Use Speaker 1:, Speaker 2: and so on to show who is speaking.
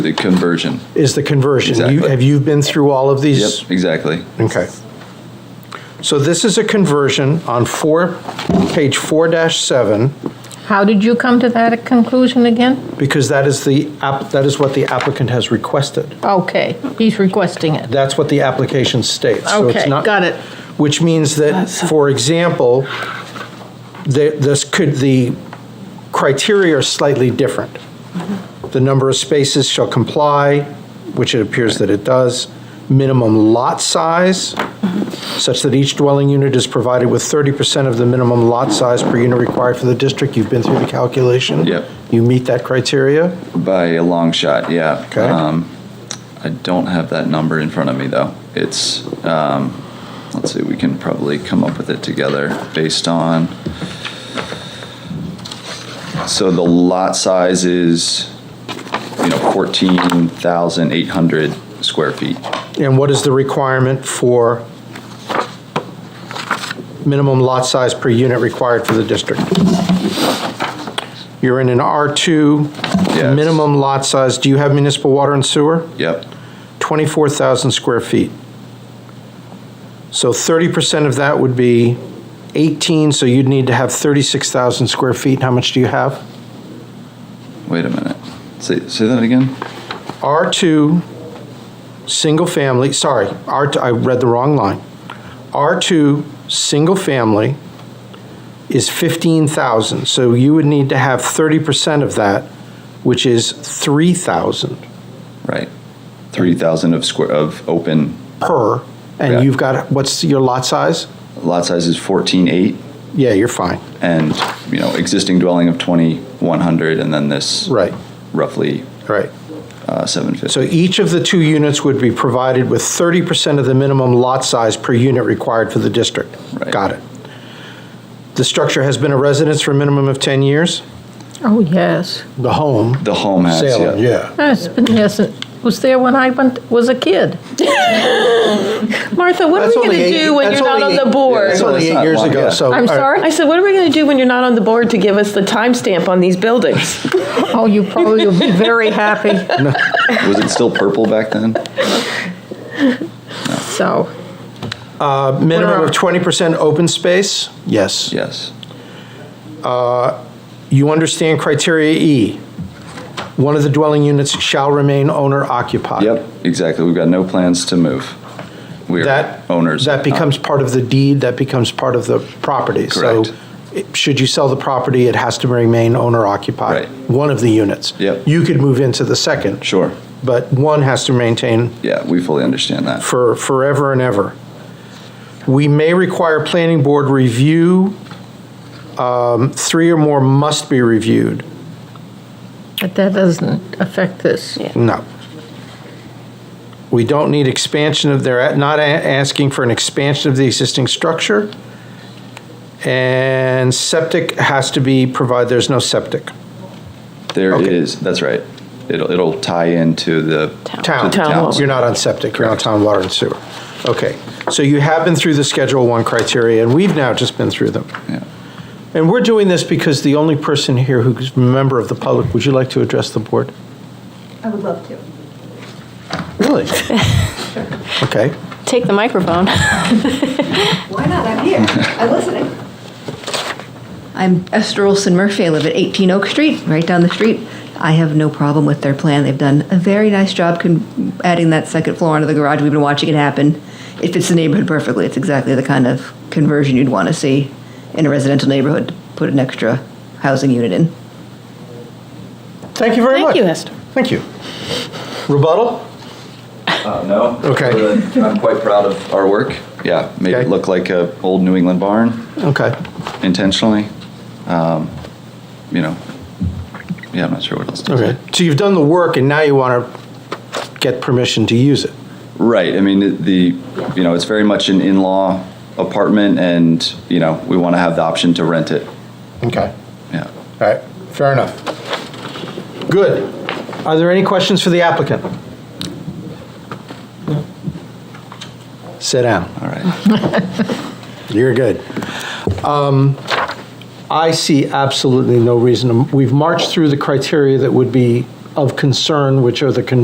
Speaker 1: The conversion.
Speaker 2: is the conversion. You-
Speaker 1: Exactly.
Speaker 2: Have you been through all of these?
Speaker 1: Yep, exactly.
Speaker 2: Okay. So this is a conversion on four, page 4-7,
Speaker 3: How did you come to that conclusion again?
Speaker 2: because that is the, app. that is what the applicant has requested.
Speaker 3: Okay, he's requesting it.
Speaker 2: That's what the application states. So it's
Speaker 3: Okay,
Speaker 2: not-
Speaker 3: got it.
Speaker 2: Which means that, for example, the- this could, the criteria are slightly different. The number of spaces shall comply, which it appears that it does, minimum lot size, such that each dwelling unit is provided with 30% of the minimum lot size per unit required for the district. You've been through the calculation.
Speaker 1: Yep.
Speaker 2: You meet that criteria.
Speaker 1: By a long shot, yeah.
Speaker 2: Okay.
Speaker 1: Um, I don't have that number in front of me, though. It's, um, let's see, we can probably come up with it together based on. So the lot size is, you know, 14,800 square feet.
Speaker 2: And what is the requirement for minimum lot size per unit required for the district? You're in an R2,
Speaker 1: Yes.
Speaker 2: minimum lot size, do you have municipal water and sewer?
Speaker 1: Yep,
Speaker 2: 24,000 square feet. So 30% of that would be 18, so you'd need to have 36,000 square feet. How much do you have?
Speaker 1: wait a minute. Say, say that again?
Speaker 2: R2, single family, sorry, R2, I read the wrong line. R2, single family is 15,000, so you would need to have 30% of that, which is 3,000
Speaker 1: Right. 3,000 of square, of open,
Speaker 2: per,
Speaker 1: Yeah.
Speaker 2: and you've got, what's your lot size?
Speaker 1: lot size is 14,8.
Speaker 2: Yeah, you're fine,
Speaker 1: and, you know, existing dwelling of 2,100, and then this.
Speaker 2: Right.
Speaker 1: Roughly
Speaker 2: right.
Speaker 1: uh,
Speaker 2: So
Speaker 1: 750.
Speaker 2: each of the two units would be provided with 30% of the minimum lot size per unit required for the district.
Speaker 1: Right.
Speaker 2: Got it. The structure has been a residence for a minimum of 10 years?
Speaker 3: Oh, yes.
Speaker 2: The home.
Speaker 1: The home has,
Speaker 2: Salem,
Speaker 1: yeah.
Speaker 2: yeah.
Speaker 3: Yes, but yes, it was there when I went, was a kid. Martha,
Speaker 4: What are
Speaker 2: That's
Speaker 4: we going
Speaker 2: only
Speaker 4: to
Speaker 2: eight-
Speaker 4: do when
Speaker 2: that's
Speaker 4: you're not
Speaker 2: only
Speaker 4: on
Speaker 2: eight-
Speaker 4: the board?
Speaker 2: That's only
Speaker 1: It's
Speaker 2: eight
Speaker 1: not
Speaker 2: years
Speaker 1: long,
Speaker 2: ago,
Speaker 1: yeah.
Speaker 2: so. all
Speaker 4: I'm
Speaker 2: right.
Speaker 4: sorry? I said, what are we going to do when you're not on the board to give us the timestamp on these buildings?
Speaker 3: Oh, you probably will be very happy,
Speaker 1: Was it still purple back then?
Speaker 3: so.
Speaker 2: A minimum
Speaker 3: What
Speaker 2: of
Speaker 3: are-
Speaker 2: 20% open space? Yes.
Speaker 1: Yes.
Speaker 2: You understand criteria E. One of the dwelling units shall remain owner occupied.
Speaker 1: Yep, exactly. We've got no plans to move. We are
Speaker 2: That.
Speaker 1: owners. Uh,
Speaker 2: That becomes part of the deed, that becomes part of the property.
Speaker 1: Correct.
Speaker 2: So it- should you sell the property, it has to remain owner occupied.
Speaker 1: Right.
Speaker 2: One of the units.
Speaker 1: Yep.
Speaker 2: You could move into the second.
Speaker 1: Sure.
Speaker 2: But one has to maintain
Speaker 1: Yeah, we fully understand that.
Speaker 2: for forever and ever. We may require planning board review. Um, Three or more must be reviewed.
Speaker 3: But that doesn't affect this.
Speaker 2: No. We don't need expansion of, they're not a- asking for an expansion of the existing structure. And septic has to be provided, there's no septic.
Speaker 1: There
Speaker 2: Okay.
Speaker 1: is, that's right. It'll, it'll tie into the. to the
Speaker 2: Town,
Speaker 4: Town
Speaker 1: town.
Speaker 4: hall.
Speaker 2: you're not on septic, you're on town water and sewer. Okay, so you have been through the Schedule 1 criteria, and we've now just been through them.
Speaker 1: Yeah.
Speaker 2: And we're doing this because the only person here who's a member of the public, would you like to address the board?
Speaker 5: I would love to.
Speaker 2: Really? Okay.
Speaker 6: Take the microphone.
Speaker 5: Why not? I'm here. I'm listening.
Speaker 7: I'm Esther Olson Murphy. I live at 18 Oak Street, right down the street. I have no problem with their plan. They've done a very nice job con- adding that second floor onto the garage. We've been watching it happen. It fits the neighborhood perfectly. It's exactly the kind of conversion you'd want to see in a residential neighborhood. to Put an extra housing unit in.
Speaker 2: Thank you very much.
Speaker 4: Thank you, Esther.
Speaker 2: Thank you. Rebuttal?
Speaker 1: Uh, No.
Speaker 2: Okay.
Speaker 1: But I'm quite proud of our work. Yeah, made
Speaker 2: Okay.
Speaker 1: it look like a old New England barn.
Speaker 2: Okay.
Speaker 1: intentionally. Um, you know, yeah, I'm not sure what else to
Speaker 2: Okay.
Speaker 1: say.
Speaker 2: So you've done the work and now you want to get permission to use it.
Speaker 1: Right. I mean, it- the you know, it's very much an in-law apartment, and you know, we want to have the option to rent it.
Speaker 2: Okay.
Speaker 1: Yeah.
Speaker 2: All right. Fair enough. Good. Are there any questions for the applicant? Sit down.
Speaker 1: All right.
Speaker 2: You're good. Um, I see absolutely no reason, to- we've marched through the criteria that would be of concern, which are the con-